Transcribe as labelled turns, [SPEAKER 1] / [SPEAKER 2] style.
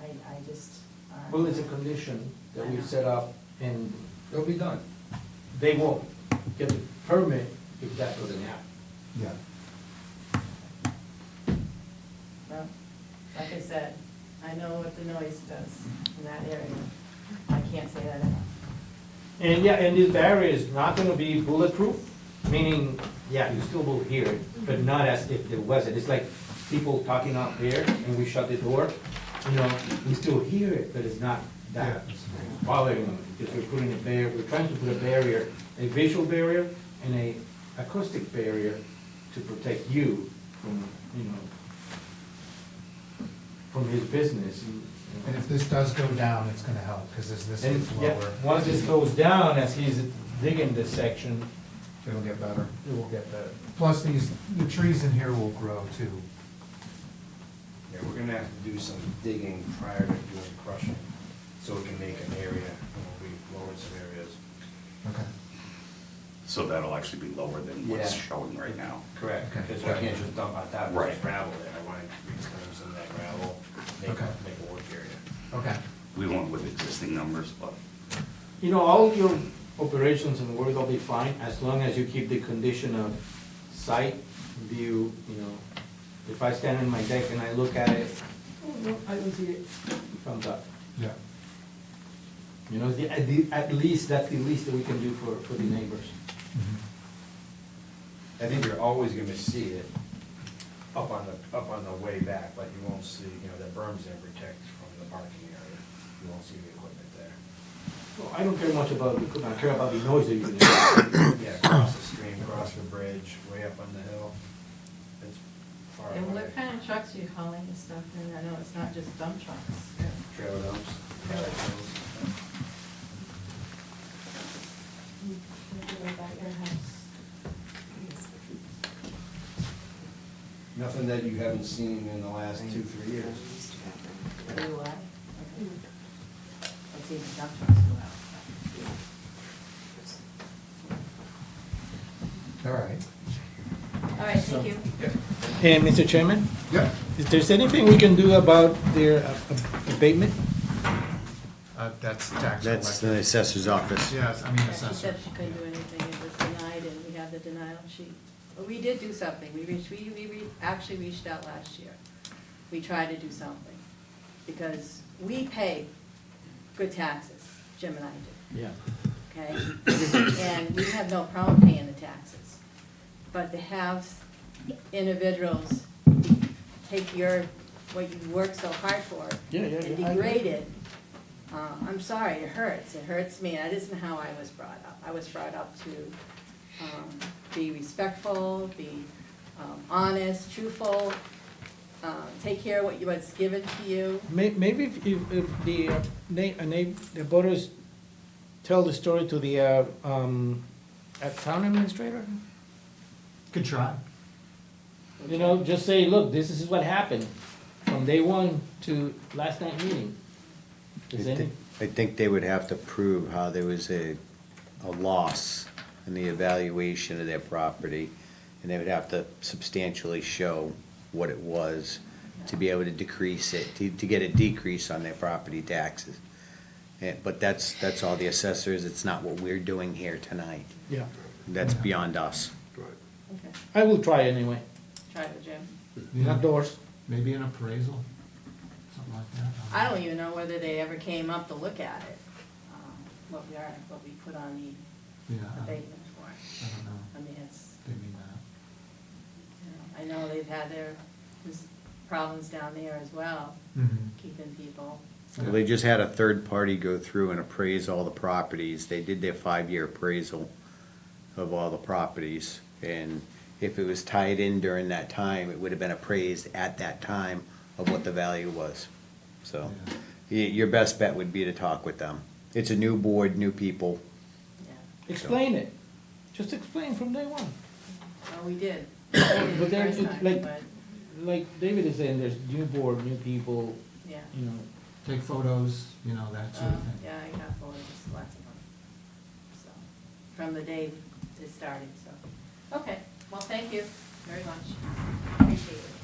[SPEAKER 1] I, I just. uh,
[SPEAKER 2] Well, it's a condition
[SPEAKER 1] I
[SPEAKER 2] that
[SPEAKER 1] know.
[SPEAKER 2] we've set up and it'll be done. They won't get the permit if that doesn't happen.
[SPEAKER 3] Yeah.
[SPEAKER 1] Well, like I said, I know what the noise does in that area. I can't say that enough.
[SPEAKER 2] And yeah, and this barrier is not gonna be bulletproof, meaning, yeah, you still will hear it, but not as if there wasn't. It's like people talking out here and we shut the door, you know, we still hear it, but it's not that
[SPEAKER 3] Yeah.
[SPEAKER 2] bothering them. Because we're putting a barrier, we're trying to put a barrier, a visual barrier and a acoustic barrier to protect you from, you know, from his business. and-
[SPEAKER 3] And if this does go down, it's gonna help, because as this
[SPEAKER 2] and
[SPEAKER 3] gets
[SPEAKER 2] yeah,
[SPEAKER 3] lower,
[SPEAKER 2] once this goes down, as he's digging this section,
[SPEAKER 3] it'll get better.
[SPEAKER 2] it will get better.
[SPEAKER 3] Plus, these, the trees in here will grow too.
[SPEAKER 4] Yeah, we're gonna have to do some digging prior to doing crushing, so we can make an area, and we lowered some areas.
[SPEAKER 3] Okay.
[SPEAKER 5] So that'll actually be lower than what's
[SPEAKER 4] Yeah.
[SPEAKER 5] showing right now.
[SPEAKER 4] Correct,
[SPEAKER 3] Okay.
[SPEAKER 4] because I can't just dump on top of this
[SPEAKER 5] Right.
[SPEAKER 4] gravel there, I wanna reclaim some of that gravel, make,
[SPEAKER 3] Okay.
[SPEAKER 4] make a work area.
[SPEAKER 3] Okay.
[SPEAKER 5] We went with existing numbers, but
[SPEAKER 2] You know, all your operations and work will be fine as long as you keep the condition of sight, view, you know. If I stand in my deck and I look at it, oh, no, I don't see it, it comes up.
[SPEAKER 3] Yeah.
[SPEAKER 2] You know, the, at the, at least, that's the least that we can do for, for the neighbors.
[SPEAKER 3] Mm-hmm.
[SPEAKER 4] I think you're always gonna see it up on the, up on the way back, but you won't see, you know, the berm's gonna protect from the parking area, you won't see the equipment there.
[SPEAKER 2] Well, I don't care much about, the equipment. I care about the noise that you're gonna make.
[SPEAKER 4] Yeah, across the stream, across the bridge, way up on the hill, it's far away.
[SPEAKER 1] And what kind of trucks are you hauling this stuff in? I know it's not just dump trucks.
[SPEAKER 4] Trailer dumps, trailer trailers.
[SPEAKER 1] You can do it by your house.
[SPEAKER 4] Nothing that you haven't seen in the last two, three years.
[SPEAKER 1] Do what? Okay. Let's see if the dump trucks go out.
[SPEAKER 3] All right.
[SPEAKER 1] All right, thank you.
[SPEAKER 2] And Mr. Chairman?
[SPEAKER 3] Yeah.
[SPEAKER 2] Is there anything we can do about their abatement?
[SPEAKER 3] Uh, that's tax
[SPEAKER 6] That's
[SPEAKER 3] collector.
[SPEAKER 6] the assessor's office.
[SPEAKER 3] Yes, I mean
[SPEAKER 1] Yeah, She
[SPEAKER 3] assessor.
[SPEAKER 1] said she couldn't do anything, it was denied, and we have the denial sheet. But we did do something, we reached, we, we re- actually reached out last year. We tried to do something, because we pay good taxes, Jim and I do,
[SPEAKER 2] Yeah.
[SPEAKER 1] okay? And we have no problem paying the taxes. But to have individuals take your, what you worked so hard for
[SPEAKER 2] Yeah, yeah,
[SPEAKER 1] and
[SPEAKER 2] yeah, I agree.
[SPEAKER 1] degrade it, uh, I'm sorry, it hurts, it hurts me, that isn't how I was brought up. I was brought up to um, be respectful, be um, honest, truthful, uh, take care of what you- what's given to you.
[SPEAKER 2] May- Maybe if, if if the, uh, na- uh, na- the voters tell the story to the, uh, um, uh, town administrator?
[SPEAKER 3] Good try.
[SPEAKER 2] You know, just say, look, this is what happened from day one to last night meeting.
[SPEAKER 6] I
[SPEAKER 2] Is any,
[SPEAKER 6] thi- I think they would have to prove how there was a, a loss in the evaluation of their property, and they would have to substantially show what it was to be able to decrease it, to, to get a decrease on their property taxes. Eh, but that's, that's all the assessors, it's not what we're doing here tonight.
[SPEAKER 2] yeah,
[SPEAKER 6] That's beyond us.
[SPEAKER 1] Okay.
[SPEAKER 2] I will try anyway,
[SPEAKER 1] Try it, Jim.
[SPEAKER 2] not doors.
[SPEAKER 3] Maybe an appraisal, something like that.
[SPEAKER 1] I don't even know whether they ever came up to look at it, um, what we are, what we put on the
[SPEAKER 3] Yeah,
[SPEAKER 2] Uh-huh.
[SPEAKER 3] I don't-
[SPEAKER 1] abatement for.
[SPEAKER 3] I don't know.
[SPEAKER 1] I mean, it's,
[SPEAKER 3] They mean that.
[SPEAKER 1] you know, I know they've had their there's problems down there as well,
[SPEAKER 2] Mm-hmm.
[SPEAKER 1] keeping people.
[SPEAKER 6] Well, They just had a third party go through and appraise all the properties. They did their five-year appraisal of all the properties. And if it was tied in during that time, it would have been appraised at that time of what the value was. So
[SPEAKER 3] Yeah.
[SPEAKER 6] y- your best bet would be to talk with them. It's a new board, new people.
[SPEAKER 1] Yeah,
[SPEAKER 2] Explain it, just explain from day one.
[SPEAKER 1] well, we did. We did the
[SPEAKER 2] But there's,
[SPEAKER 1] first time,
[SPEAKER 2] like-
[SPEAKER 1] but,
[SPEAKER 2] Like David is saying, there's new board, new people,
[SPEAKER 1] Yeah,
[SPEAKER 2] you know,
[SPEAKER 3] Take photos, you know, that sort
[SPEAKER 1] Uh,
[SPEAKER 3] of thing.
[SPEAKER 1] yeah, I got four, just lots of them, so, from the day it started, so. Okay, well, thank you very much, appreciate it.